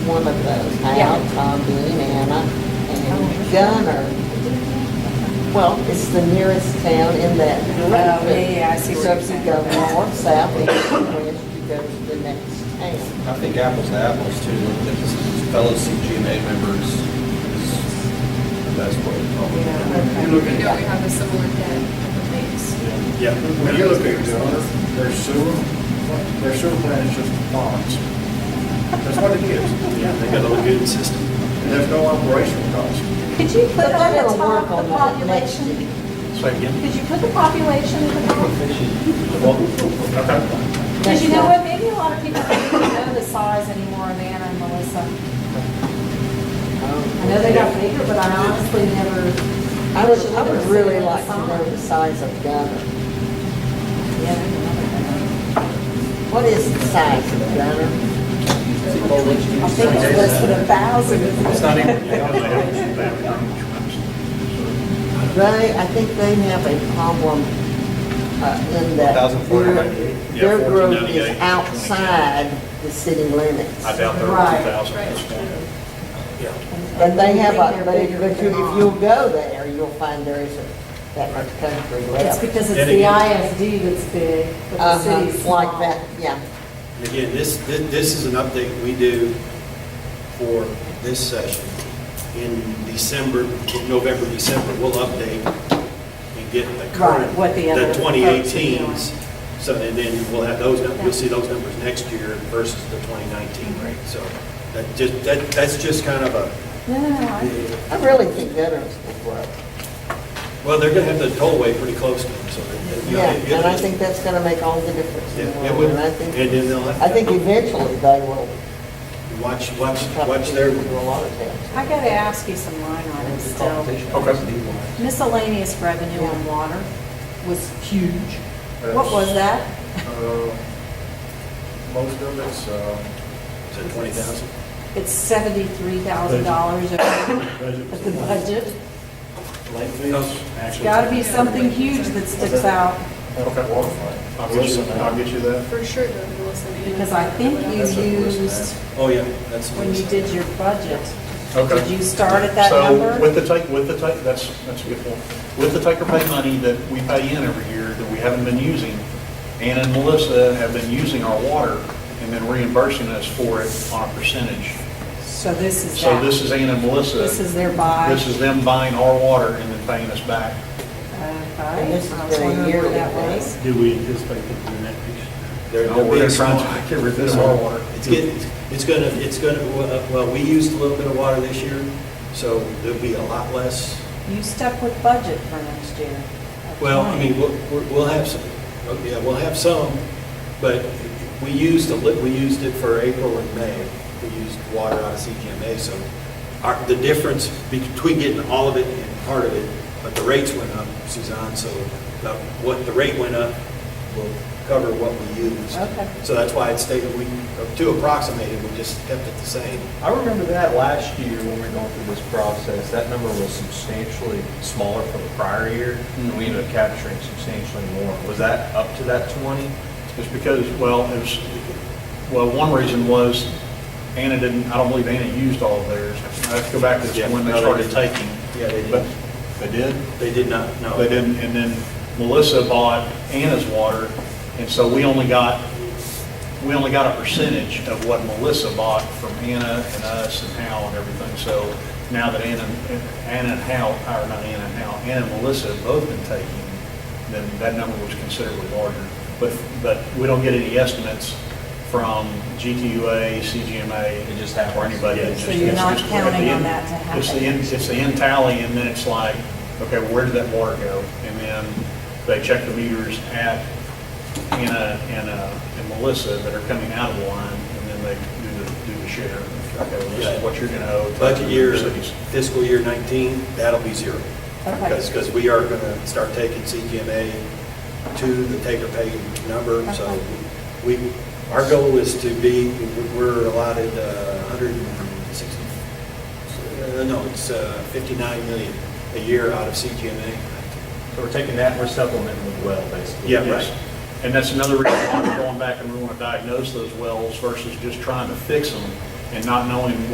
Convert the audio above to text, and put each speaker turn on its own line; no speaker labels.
one of those, Hal, Tom, Dean, Anna, and Gunner. Well, it's the nearest town in that group.
Oh, yeah, yeah, I see what
So
you're
if you
saying.
go north, south, east, and west, you go to the next town.
I think apples to apples too, looking at this fellow CGMA members is the best way to call
You
it.
Yeah,
look
okay.
at,
know we have a similar debt of things.
yeah, when you look at Gunner, their sewer, their sewer plant is just ponds. That's what it is.
Yeah, they got a lagoon system.
And there's no operational cost.
Could you put
But
on
they're
the
gonna
top
work
the
on that next
population?
year.
Say again?
Could you put the population at the top?
Okay.
Because you know what, maybe a lot of people don't even know the size anymore of Anna and Melissa. I
Oh.
know they got bigger, but I honestly never.
I would, I would really like to know the
Yeah,
size of Gunner.
there's another one.
What is the size of Gunner?
I think it's less than a thousand.
It's not even, yeah, I don't know, they have a
They, I think they have a problem uh, in that
1,498.
Yeah,
their, their growth is
1,498.
outside the city limits.
I doubt there are
Right,
two thousand at this
right.
point. Yeah.
And they have, a
They're
but if,
bigger
but you-
than
if
ours.
you'll go there, you'll find there is a, that much country
It's
left.
because it's
Then
the
again-
ISD that's big, but the city's
Uh-huh,
small.
like that, yeah.
And again, this, thi- this is an update we do for this session. In December, in November, December, we'll update and get the current,
Right, what the other
the
folks are
2018s. So, and then we'll have those, num- you'll see those numbers next year versus the 2019 rate. So that just, that, that's just kind of a,
Mm-hmm. No, no, no, I-
I really think veterans will grow.
well, they're going to have the tollway pretty close to them, so. they- you know,
Yeah,
it-
and I think that's gonna make all the difference. in
Yeah,
the
it
world.
would,
And I
and
think,
then they'll have.
I think eventually they will.
Watch, watch,
probably
watch their,
do A lot of towns.
I gotta ask you some line items still. Miscellaneous revenue on water was huge. What was that?
Uh, Most of it's, uh,
is it 20,000?
It's seventy-three thousand dollars of of the budget.
Late fees, actually.
Gotta be something huge that sticks out,
okay, water plant.
I'll get you-
I'll get you that.
For sure, though, the Wilson. and-
because I think you used,
Oh, yeah, that's.
when you did your budget,
Okay.
did you start at that
So with
number?
the take, with the take, that's, that's a good point. With the take or pay money that we pay in every year that we haven't been using, Anna and Melissa have been using our water and then reimbursing us for it on a percentage.
So this is
So this
that.
is Anna and Melissa.
This is their buy.
This is them buying our water and then paying us back.
And this is
Okay, I was
their
wondering where
yearly
that
thing.
was.
Do we anticipate them doing that piece?
They're
No, Oh, we're
being
trying to
smart.
get rid of this
They're
water.
smart. It's getting, it's gonna, it's gonna, well, we used a little bit of water this year, so there'll be a lot less.
You stuck with budget for next year. of
Well, I
20.
mean, we'll, we'll- we'll have some, oh, yeah, we'll have some, but we used a lit, we used it for April and May. We used water out of CGMA, so our, the difference between getting all of it and part of it, but the rates went up, Suzanne, so the- what, the rate went up will cover what we used.
Okay.
So that's why it stayed, we, to approximate it, we just kept it the same.
I remember that last year when we were going through this process, that number was substantially smaller from the prior year, and we ended up capturing substantially more. Was that up to that 20?
It's because, well, it was, well, one reason was Anna didn't, I don't believe Anna used all of theirs. I have to go back to
Yeah,
this when they
no, they
started
didn't.
taking.
Yeah, they did.
But They did?
They did not, no.
They didn't, and then Melissa bought Anna's water, and so we only got, we only got a percentage of what Melissa bought from Anna and us and Hal and everything. So now that Anna, Anna and Hal, or not Anna and Hal, Anna and Melissa have both been taking, then that number was considerably larger. But, but we don't get any estimates from GTUA, CGMA.
It just happens.
Or anybody. It's
So
just-
you're
it's
not
just-
counting on
it's the-
that to happen.
It's the end, it's the end tally, and then it's like, okay, where did that water go? And then they check the meters at Anna and, uh, and Melissa that are coming out of the line, and then they do the, do the share. Okay, well, this is what you're gonna owe. to
Budget year,
the cities.
fiscal year 19, that'll be zero.
Okay.
Because, because we are going to start taking CGMA to the take-or-pay number, so
Okay.
we, our goal is to be, we're allotted uh, 160, uh, no, it's uh, 59 million a year out of CGMA.
So we're taking that, we're supplementing with well, basically.
Yeah,
Yes.
right.
And that's another reason why we're going back and we want to diagnose those wells versus just trying to fix them. and not knowing